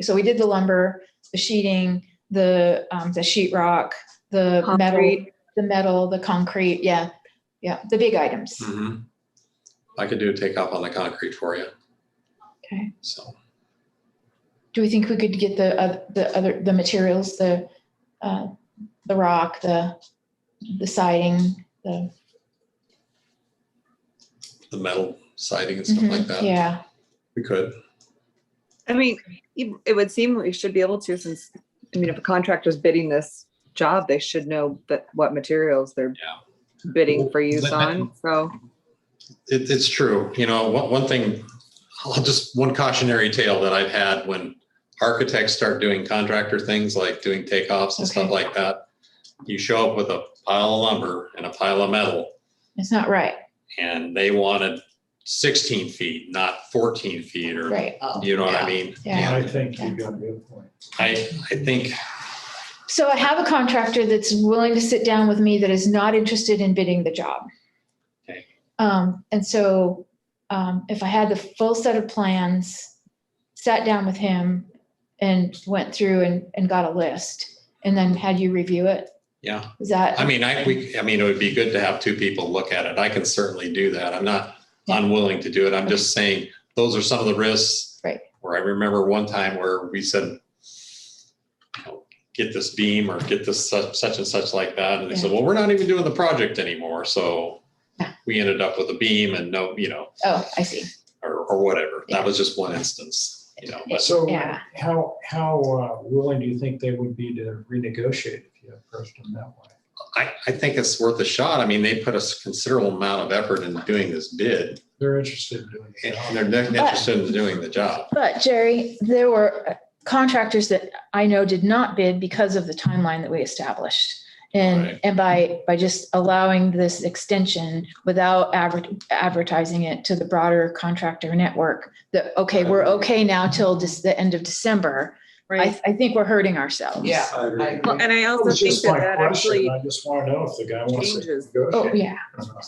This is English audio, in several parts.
so we did the lumber, the sheeting, the, um, the sheet rock, the metal, Concrete. the metal, the concrete, yeah, yeah, the big items. Mhm. I could do a takeoff on the concrete for you, Okay. so. Do we think we could get the, uh, the other, the materials, the, uh, the rock, the, the siding, the. The metal siding and stuff like Mhm, that, Yeah, we could. I mean, it it would seem we should be able to since, I mean, if a contractor's bidding this job, they should know that what materials they're Yeah. bidding for use Let- on. So It, it's true, you know, one, one thing, I'll just, one cautionary tale that I've had when architects start doing contractor things like doing takeoffs and stuff Okay. like that. You show up with a pile of lumber and a pile of metal it's not right, and they wanted sixteen feet, not fourteen feet or, right, you know what Yeah. I mean? yeah. I think you've got a good point. I, I think So I have a contractor that's willing to sit down with me that is not interested in bidding the job. Okay. Um, and so, um, if I had the full set of plans, sat down with him and went through and, and got a list and then had you review it, Yeah, is that? I mean, I, we, I mean, it would be good to have two people look at it. I can certainly do that. I'm not Yeah. unwilling to do it. I'm just saying, those are some of the risks. Right. Where I remember one time where we said, you know, get this beam or get this such, such and such like that. And they said, well, we're not even doing the project anymore. So Yeah. we ended up with a beam and no, you know, Oh, I see. or, or whatever. Yeah. That was just one instance, you know, but So Yeah. how, how uh, willing do you think they would be to renegotiate if you approached them that way? I, I think it's worth a shot. I mean, they put a considerable amount of effort in doing this bid. They're interested in doing and it. and they're not interested in doing the job. But Jerry, there were uh, contractors that I know did not bid because of the timeline that we established. And, Right. and by, by just allowing this extension without adver- advertising it to the broader contractor network, that, okay, we're okay now till this, the end of December. I, right. I think we're hurting ourselves. Yeah. It Well, and I also was think just that my that question. actually, I just want to know if the guy wants changes. to Oh, negotiate. yeah. or not.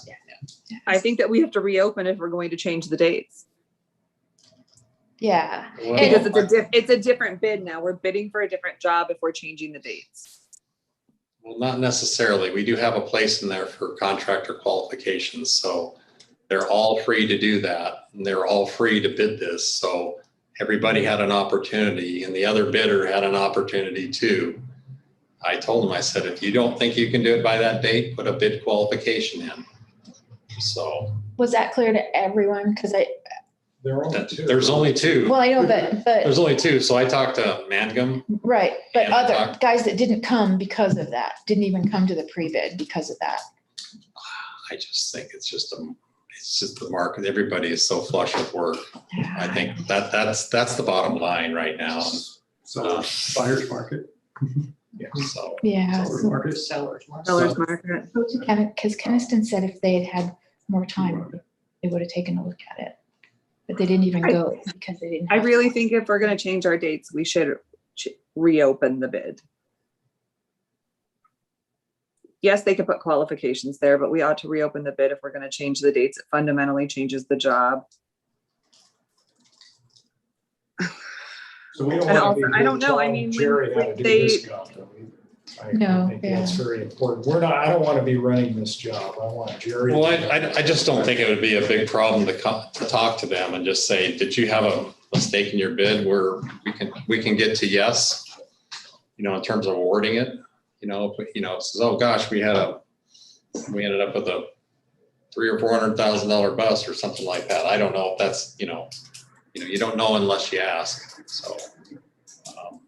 I think that we have to reopen if we're going to change the dates. Yeah. Because it's a Well, diff, it's a different bid now. We're bidding for a different job if we're changing the dates. well, not necessarily. We do have a place in there for contractor qualifications, so they're all free to do that. And they're all free to bid this, so everybody had an opportunity and the other bidder had an opportunity too. I told them, I said, if you don't think you can do it by that date, put a bid qualification in. So Was that clear to everyone? Because I, There are only that- two. there's only two, well, I know, but, but, there's only two. So I talked to Mangum. right. But Yeah, I other talked- guys that didn't come because of that, didn't even come to the pre-bid because of that. I just think it's just a, it's just the market. Everybody is so flush with work. I think that that's that's the bottom line right now. So Uh, buyer's market, So Yeah. seller's market. Sellers market. Seller's market. Because Keniston said if they had had more time, they would have taken a look at it. But they didn't even I- go because they didn't. I have really time. think if we're gonna change our dates, we should ch- reopen the bid. Yes, they could put qualifications there, but we ought to reopen the bid if we're gonna change the dates. It fundamentally changes the job. So we And don't want to also- be I don't here know, I telling mean, when- Jerry how to when do they- this job, though, either. I- No, I think that's yeah. very important. We're not, I don't want to be running this job. I want Jerry. to well, I, do I I just don't think it would be a big problem to come to talk to them and just say, did you have a mistake in your bid where we can we can get to yes? You know, in terms of awarding it, you know, if, you know, it says, oh gosh, we had a we ended up with a three or four hundred thousand dollar bus or something like that. I don't know if that's, you know, you know, you don't know unless you ask. So um,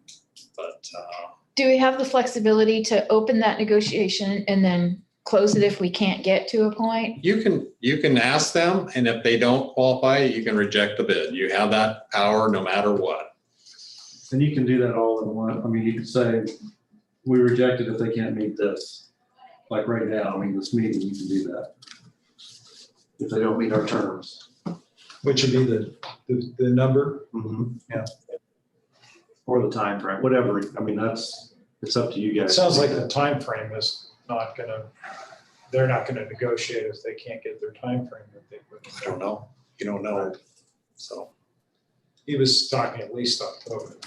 but uh Do we have the flexibility to open that negotiation and then close it if we can't get to a point? You can, you can ask them, and if they don't qualify, you can reject the bid. You have that power no matter what. And you can do that all in one. I mean, you could say, we reject it if they can't meet this. Like right now, I mean, this meeting, you can do that. If they don't meet our terms. Which would be the, the, the number. Yeah. Mm-hmm. Or the time frame, whatever. I mean, that's, it's up to you It guys. sounds like the time frame is not gonna, they're not gonna negotiate if they can't get their time frame that they put. I don't know. You don't know. So He was talking at least October.